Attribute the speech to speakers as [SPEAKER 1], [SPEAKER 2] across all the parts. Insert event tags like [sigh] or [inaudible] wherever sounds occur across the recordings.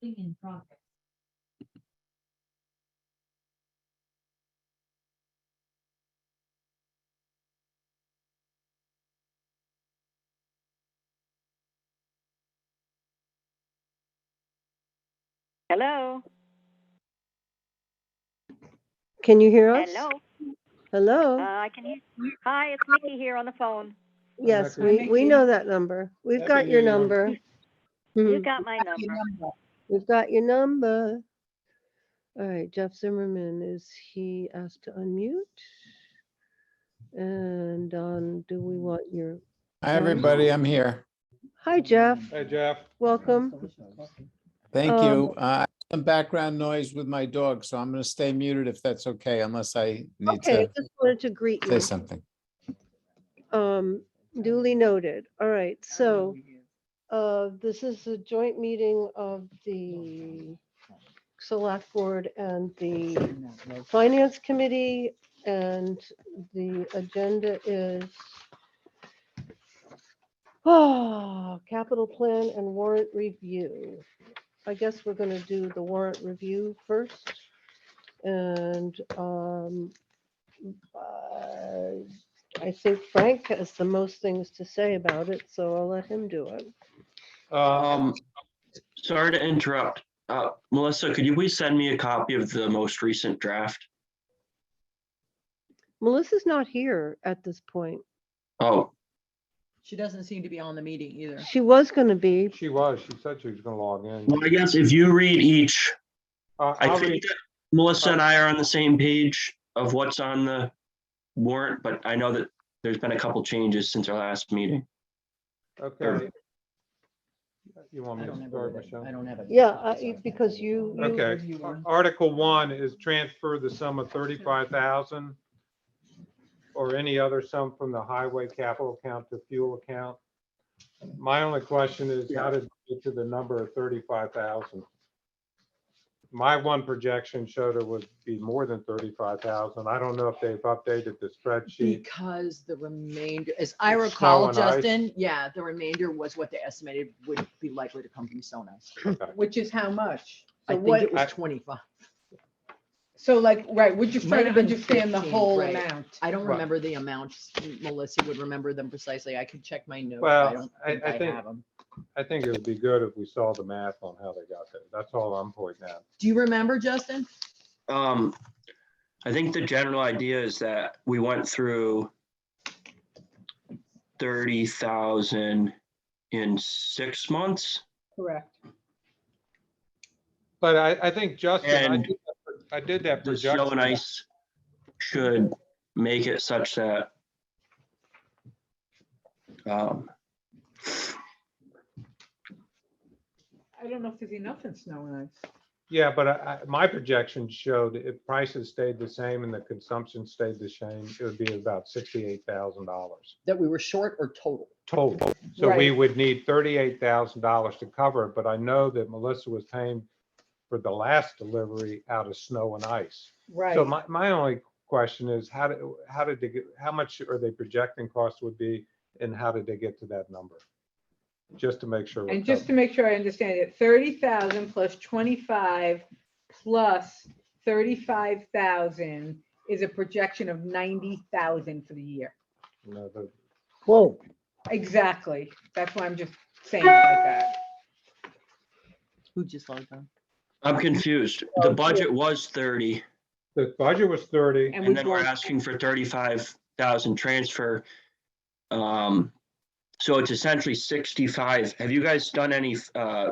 [SPEAKER 1] Thing in progress.
[SPEAKER 2] Hello.
[SPEAKER 3] Can you hear us?
[SPEAKER 2] Hello. Uh,
[SPEAKER 3] Hello?
[SPEAKER 2] I can hear. Hi, it's Mickey here on the phone.
[SPEAKER 3] Yes,
[SPEAKER 4] Rebecca.
[SPEAKER 3] we, we know that number. We've
[SPEAKER 4] Happy
[SPEAKER 3] got
[SPEAKER 4] New
[SPEAKER 3] your
[SPEAKER 4] Year.
[SPEAKER 3] number.
[SPEAKER 2] You
[SPEAKER 3] Mhm.
[SPEAKER 2] got my number.
[SPEAKER 3] We've got your number. All right, Jeff Zimmerman, is he asked to unmute? And Don, do we want your,
[SPEAKER 5] Hi, everybody. I'm here.
[SPEAKER 3] hi Jeff,
[SPEAKER 4] Hey, Jeff.
[SPEAKER 3] welcome.
[SPEAKER 5] Thank
[SPEAKER 3] Um,
[SPEAKER 5] you. Uh, I have Some background noise with my dog, so I'm going to stay muted if that's okay, unless I need
[SPEAKER 3] Okay,
[SPEAKER 5] to
[SPEAKER 3] just wanted to greet
[SPEAKER 5] say
[SPEAKER 3] you.
[SPEAKER 5] something.
[SPEAKER 3] Um, duly noted. All right, so uh, this is a joint meeting of the Select Board and the Finance Committee, and the agenda is oh, capital plan and warrant review. I guess we're gonna do the warrant review first. And um, uh, I I think Frank has the most things to say about it, so I'll let him do it.
[SPEAKER 6] Um, sorry to interrupt. Uh, Melissa, could you please send me a copy of the most recent draft?
[SPEAKER 3] Melissa's not here at this point.
[SPEAKER 6] Oh,
[SPEAKER 7] She doesn't seem to be on the meeting either.
[SPEAKER 3] She was gonna be,
[SPEAKER 4] She was, she said she was gonna log in.
[SPEAKER 6] well, I guess if you read each,
[SPEAKER 4] Uh,
[SPEAKER 6] I
[SPEAKER 4] I'll
[SPEAKER 6] think
[SPEAKER 4] read-
[SPEAKER 6] that Melissa and I are on the same page of what's on the warrant, but I know that there's been a couple changes since our last meeting.
[SPEAKER 4] Okay. You want
[SPEAKER 7] I
[SPEAKER 4] me
[SPEAKER 7] don't
[SPEAKER 4] to
[SPEAKER 7] have it
[SPEAKER 4] start,
[SPEAKER 7] with it. I
[SPEAKER 4] Michelle?
[SPEAKER 7] don't have it.
[SPEAKER 3] yeah, I- because you. you-
[SPEAKER 4] Okay, Ar- Article one is transfer the sum of thirty-five thousand or any other sum from the highway capital account to fuel account. My only question is how did you get to the number of thirty-five thousand? My one projection showed it would be more than thirty-five thousand. I don't know if they've updated the
[SPEAKER 6] [clears throat]
[SPEAKER 4] spreadsheet.
[SPEAKER 7] Because the remainder, as I
[SPEAKER 4] Snow
[SPEAKER 7] recall,
[SPEAKER 4] and ice.
[SPEAKER 7] Justin, yeah, the remainder was what they estimated would be likely to come from Sonos.
[SPEAKER 4] Okay.
[SPEAKER 8] Which is how much?
[SPEAKER 7] I
[SPEAKER 8] So
[SPEAKER 7] think
[SPEAKER 8] what,
[SPEAKER 7] it was
[SPEAKER 4] I-
[SPEAKER 7] twenty-five.
[SPEAKER 8] so like, right, we're just
[SPEAKER 7] Might
[SPEAKER 8] trying
[SPEAKER 7] have
[SPEAKER 8] to
[SPEAKER 7] been
[SPEAKER 8] understand the
[SPEAKER 7] 15,
[SPEAKER 8] whole
[SPEAKER 7] right.
[SPEAKER 8] amount.
[SPEAKER 7] I don't
[SPEAKER 4] Right.
[SPEAKER 7] remember the amounts. Melissa would remember them precisely. I could check my notes. but
[SPEAKER 4] Well,
[SPEAKER 7] I don't
[SPEAKER 4] I- I think-
[SPEAKER 7] have 'em.
[SPEAKER 4] I think it would be good if we saw the math on how they got there. That's all I'm pointing out.
[SPEAKER 7] Do you remember, Justin?
[SPEAKER 6] Um, I think the general idea is that we went through thirty thousand in six months.
[SPEAKER 8] Correct.
[SPEAKER 4] But I, I think Justin, I
[SPEAKER 6] And
[SPEAKER 4] did that- I did that
[SPEAKER 6] the snow and
[SPEAKER 4] projection.
[SPEAKER 6] ice should make it such that um,
[SPEAKER 8] I don't know if there's enough in snow and ice.
[SPEAKER 4] Yeah, but I, I- my projection showed if prices stayed the same and the consumption stayed the same, it would be about sixty-eight thousand dollars
[SPEAKER 7] That we were short or total?
[SPEAKER 4] total. So we
[SPEAKER 8] Right.
[SPEAKER 4] would need thirty-eight thousand dollars to cover it, but I know that Melissa was paying for the last delivery out of snow and ice.
[SPEAKER 8] Right.
[SPEAKER 4] So my, my only question is, how did, how did they get, how much are they projecting costs would be and how did they get to that number? Just to make sure. we're
[SPEAKER 8] And just to
[SPEAKER 4] covered.
[SPEAKER 8] make sure I understand it, thirty thousand plus twenty-five plus thirty-five thousand is a projection of ninety thousand for the year.
[SPEAKER 4] No, the-
[SPEAKER 3] Whoa.
[SPEAKER 8] Exactly. That's why I'm just saying it like that.
[SPEAKER 7] Who just logged on?
[SPEAKER 6] I'm confused. The
[SPEAKER 8] Oh,
[SPEAKER 6] budget was 30
[SPEAKER 4] The budget was thirty.
[SPEAKER 8] And
[SPEAKER 6] and then
[SPEAKER 8] we
[SPEAKER 6] we're
[SPEAKER 8] won't,
[SPEAKER 6] asking for 35,000 transfer. Um, So it's essentially 65. Have you guys done any uh,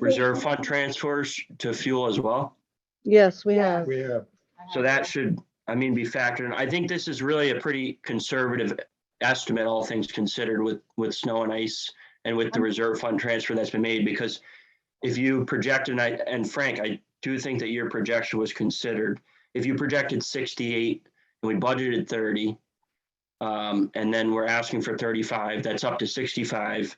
[SPEAKER 6] reserve fund transfers to fuel as well?
[SPEAKER 3] Yes, we have.
[SPEAKER 4] We have,
[SPEAKER 6] So that should, I mean, be factored in. I think this is really a pretty conservative estimate, all things considered with, with snow and ice and with the reserve fund transfer that's been made, because if you project, and I, and Frank, I do think that your projection was considered. If you projected sixty-eight and we budgeted thirty, um, and then we're asking for thirty-five, that's up to sixty-five.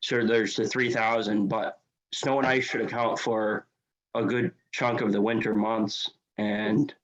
[SPEAKER 6] So there's the three thousand, but snow and ice should account for a good chunk of the winter months and